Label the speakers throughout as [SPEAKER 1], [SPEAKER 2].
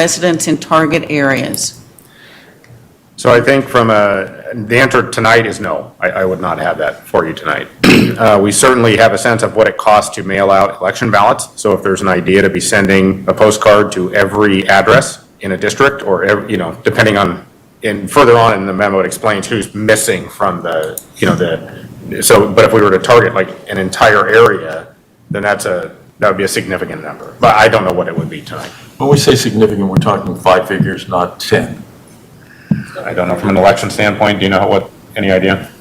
[SPEAKER 1] residents in target areas.
[SPEAKER 2] So I think from a, the answer tonight is no. I, I would not have that for you tonight. Uh, We certainly have a sense of what it costs to mail out election ballots. So if there's an idea to be sending a postcard to every address in a district or, ev- you know, depending on, and further on in the memo, it explains who's missing from the, you know, the, so, but if we were to target like an entire area, then that's a, that would be a significant number. But I don't know what it would be tonight.
[SPEAKER 3] When we say significant, we're talking five figures, not 10.
[SPEAKER 2] I don't know, from an election standpoint, do you know what, any idea?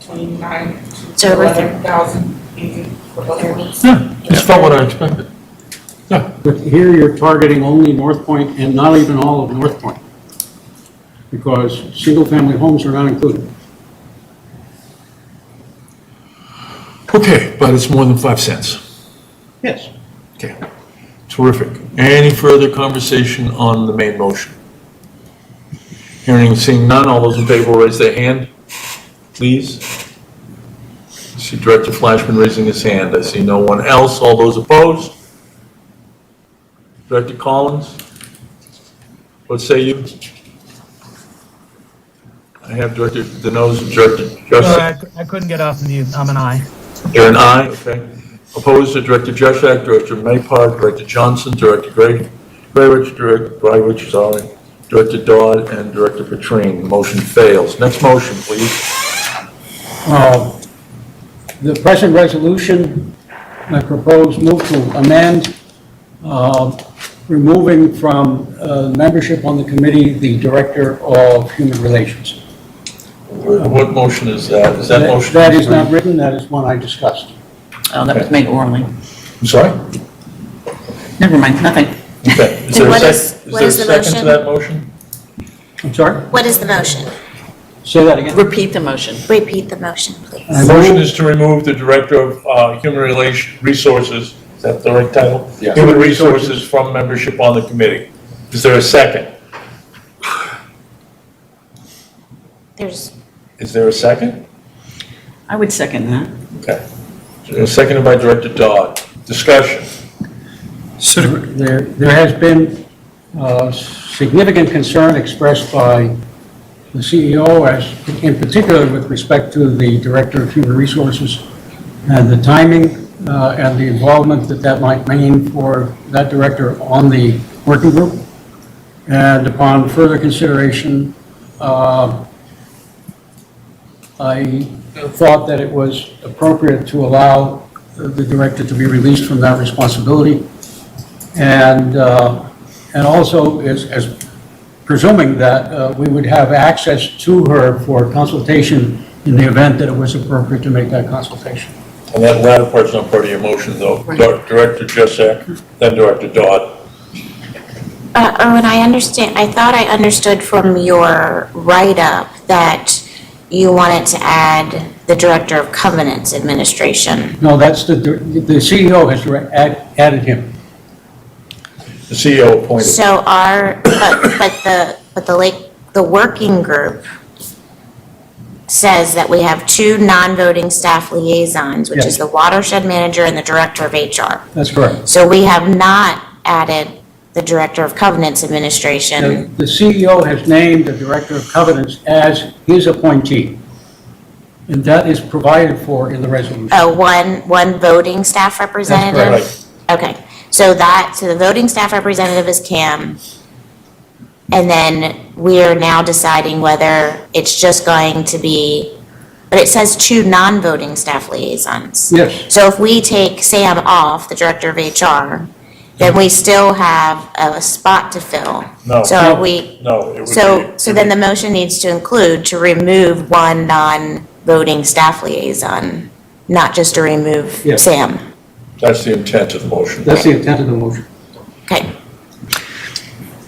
[SPEAKER 4] 29
[SPEAKER 5] It's
[SPEAKER 4] to
[SPEAKER 5] over thir-
[SPEAKER 4] 11,000 easy for both of us.
[SPEAKER 3] Yeah, it's about what I expected.
[SPEAKER 6] But here you're targeting only North Point and not even all of North Point, because single-family homes are not included.
[SPEAKER 3] Okay, but it's more than 5 cents.
[SPEAKER 6] Yes.
[SPEAKER 3] Okay, terrific. Any further conversation on the main motion? Hearing and seeing none, all those in favor will raise their hand, please. I see Director Flashman raising his hand, I see no one else, all those opposed? Director Collins? What say you? I have Director, the nose of Director Justice.
[SPEAKER 7] Sorry, I cou- I couldn't get off mute. I'm an I.
[SPEAKER 3] You're an aye, okay. Opposed to Director Jerzak, Director Maypart, Director Johnson, Director Gray, Grayrich, Director Grayrich, sorry, Director Dodd, and Director Petrine. Motion fails. Next motion, please.
[SPEAKER 6] Uh, The present resolution I propose move to amend, uh, removing from uh, membership on the committee the Director of Human Relations.
[SPEAKER 3] What motion is that? Is that motion?
[SPEAKER 6] That is not written, that is one I discussed.
[SPEAKER 1] Oh, that was made orally.
[SPEAKER 3] I'm sorry?
[SPEAKER 1] Never mind, nothing.
[SPEAKER 3] Okay. Is
[SPEAKER 5] And
[SPEAKER 3] there a
[SPEAKER 5] what
[SPEAKER 3] sec-
[SPEAKER 5] is- what is the
[SPEAKER 3] there a second to that
[SPEAKER 5] motion?
[SPEAKER 3] motion?
[SPEAKER 6] I'm sorry?
[SPEAKER 5] What is the motion?
[SPEAKER 6] Say that again.
[SPEAKER 1] Repeat the motion.
[SPEAKER 5] Repeat the motion,
[SPEAKER 6] I
[SPEAKER 3] The
[SPEAKER 5] please.
[SPEAKER 6] move-
[SPEAKER 3] motion is to remove the Director of uh, Human Relation, Resources, is that the right title? Human Resources from membership on the committee. Is there a second?
[SPEAKER 5] There's,
[SPEAKER 3] Is there a second?
[SPEAKER 1] I would second that.
[SPEAKER 3] Okay. Seconded by Director Dodd. Discussion.
[SPEAKER 6] There, there has been uh, significant concern expressed by the CEO as, in particular with respect to the Director of Human Resources and the timing uh, and the involvement that that might mean for that director on the working group. And upon further consideration, uh, I thought that it was appropriate to allow the director to be released from that responsibility. And, uh, and also is, is presuming that uh, we would have access to her for consultation in the event that it was appropriate to make that consultation.
[SPEAKER 3] And that latter part's not part of your motion, though. Dir- Director Jessac, then Director Dodd.
[SPEAKER 5] uh, Erwin, I understand, I thought I understood from your write-up that you wanted to add the Director of Covenants Administration.
[SPEAKER 6] No, that's the, the CEO has direct- add- added him.
[SPEAKER 3] The CEO appointed.
[SPEAKER 5] So our, but, but the, but the Lake, the working group says that we have two non-voting staff liaisons, which
[SPEAKER 6] Yes.
[SPEAKER 5] is the Watershed Manager and the Director of HR.
[SPEAKER 6] That's correct.
[SPEAKER 5] So we have not added the Director of Covenants Administration.
[SPEAKER 6] And the CEO has named the Director of Covenants as his appointee. And that is provided for in the resolution.
[SPEAKER 5] Oh, one, one voting staff representative?
[SPEAKER 3] Right.
[SPEAKER 5] Okay, so that, so the voting staff representative is Cam. And then we are now deciding whether it's just going to be, but it says two non-voting staff liaisons.
[SPEAKER 6] Yes,
[SPEAKER 5] So if we take Sam off, the director of HR, then we still have a spot to fill.
[SPEAKER 3] No.
[SPEAKER 5] So are we,
[SPEAKER 3] No, it would be.
[SPEAKER 5] so, so then the motion needs to include to remove one non-voting staff liaison, not just to remove
[SPEAKER 6] Yes.
[SPEAKER 5] Sam.
[SPEAKER 3] That's the intent of the motion.
[SPEAKER 6] that's the intent of the motion.
[SPEAKER 5] Okay.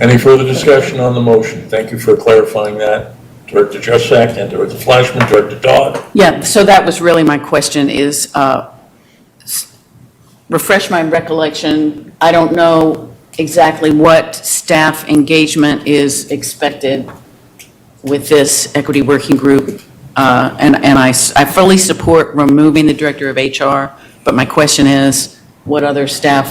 [SPEAKER 3] Any further discussion on the motion? Thank you for clarifying that. Director Jessac and Director Flashman, Director Dodd.
[SPEAKER 1] Yeah, so that was really my question is, uh, s- refresh my recollection, I don't know exactly what staff engagement is expected with this equity working group. Uh, And, and I, s- I fully support removing the director of HR, but my question is, what other staff